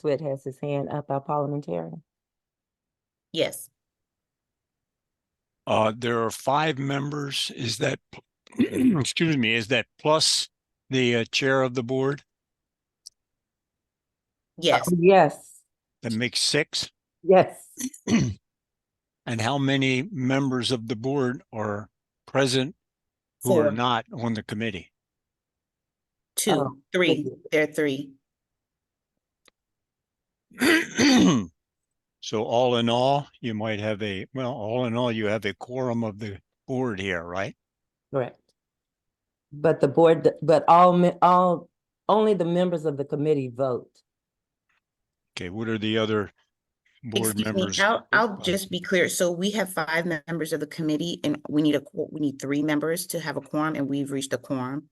Swift has his hand up, our parliamentarian. Yes. Uh, there are five members. Is that, excuse me, is that plus the uh, chair of the board? Yes. Yes, That makes six. yes. And how many members of the board are present who Four, are not on the committee? Oh, um, two, three. There are three. So all in all, you might have a, well, all in all, you have a quorum of the board here, right? Correct. But the board, but all, me- all, only the members of the committee vote. Okay, what are the other board Excuse me, members? I'll, I'll Uh, just be clear. So we have five members of the committee and we need a, qu- we need three members to have a quorum and we've reached a quorum.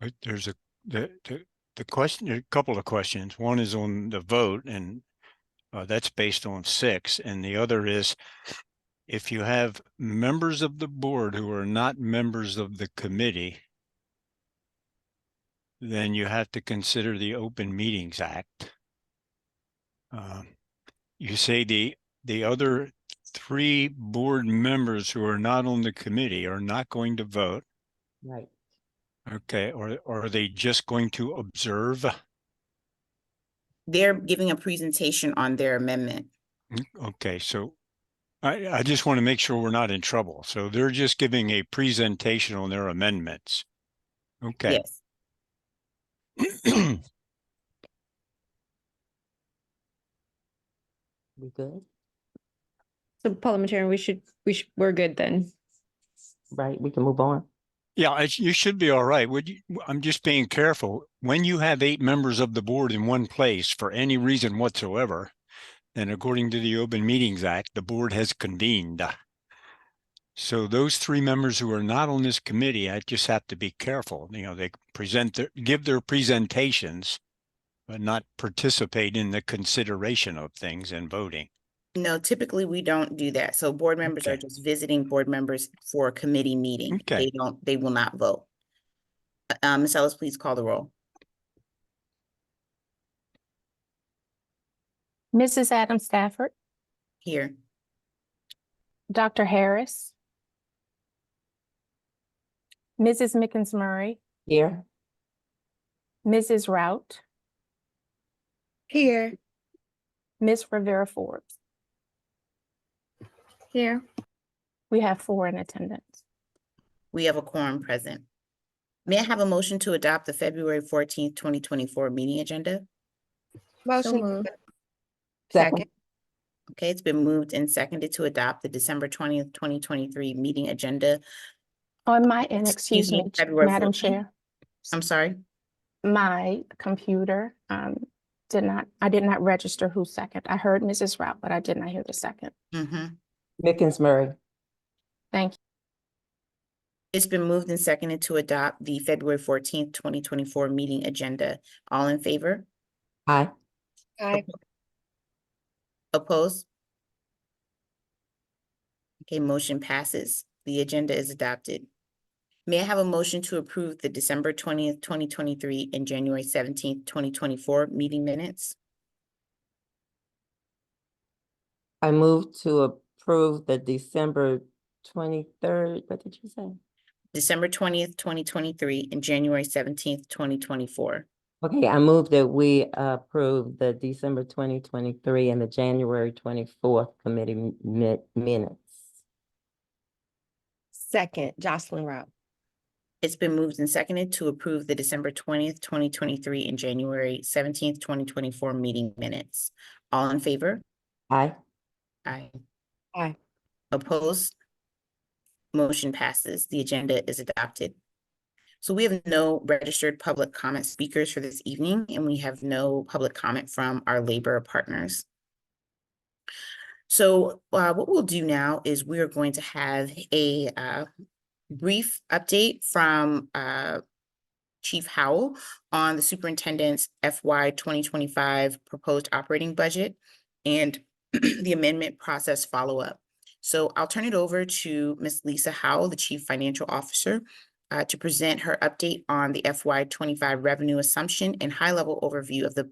But there's a, the, the, the question, a couple of questions. One is on the vote and uh, that's based on six. And the other is if you have members of the board who are not members of the committee, then you have to consider the Open Meetings Act. Um, You say the, the other three board members who are not on the committee are not going to vote. Right. Okay, or, or are they just going to observe? They're giving a presentation on their amendment. Okay, so I, I just want to make sure we're not in trouble. So they're just giving a presentation on their amendments. Okay. Yes. We good? So parliamentarian, we should, we should, we're good then. Right, we can move on. Yeah, I- you should be all right. Would you, I'm just being careful. When you have eight members of the board in one place for any reason whatsoever, then according to the Open Meetings Act, the board has convened. So those three members who are not on this committee, I just have to be careful. You know, they present their, give their presentations, but not participate in the consideration of things and voting. No, typically we don't do that. So board members are Okay. just visiting board members for a committee meeting. Okay. They don't, they will not vote. Uh, Um, Ms. Ellis, please call the roll. Mrs. Adam Stafford, Here. Dr. Harris, Mrs. Mickens Murray, Here, Mrs. Rout, Here. Miss Rivera Forbes. Here. We have four in attendance. We have a quorum present. May I have a motion to adopt the February fourteenth, twenty twenty-four meeting agenda? Motion. to moved. adopt. second, Okay, it's been moved and seconded to adopt the December twentieth, twenty twenty-three meeting agenda. On my end, excuse me, me, Ch- February Madam 14th? Chair, I'm sorry. my computer um, did not, I did not register who second. I heard Mrs. Rout, but I did not hear the second. Mhm. Mickens Murray, Thank you. It's been moved and seconded to adopt the February fourteenth, twenty twenty-four meeting agenda. All in favor? aye. Aye. Opposed? Okay, motion passes. The agenda is adopted. May I have a motion to approve the December twentieth, twenty twenty-three and January seventeenth, twenty twenty-four meeting minutes? I move to approve the December twenty-third, what did you say? December twentieth, twenty twenty-three and January seventeenth, twenty twenty-four. Okay, I move that we approve the December twenty twenty-three and the January twenty-fourth committee m- mi- minutes. Second, Jocelyn Rout. It's been moved and seconded to approve the December twentieth, twenty twenty-three and January seventeenth, twenty twenty-four meeting minutes. All in favor? Aye. Aye. Aye. Opposed? Motion passes. The agenda is adopted. So we have no registered public comment speakers for this evening, and we have no public comment from our labor partners. So uh, what we'll do now is we are going to have a uh, brief update from uh, Chief Howell on the superintendent's FY twenty twenty-five proposed operating budget and the amendment process follow-up. So I'll turn it over to Ms. Lisa Howell, the Chief Financial Officer, uh, to present her update on the FY twenty-five revenue assumption and high-level overview of the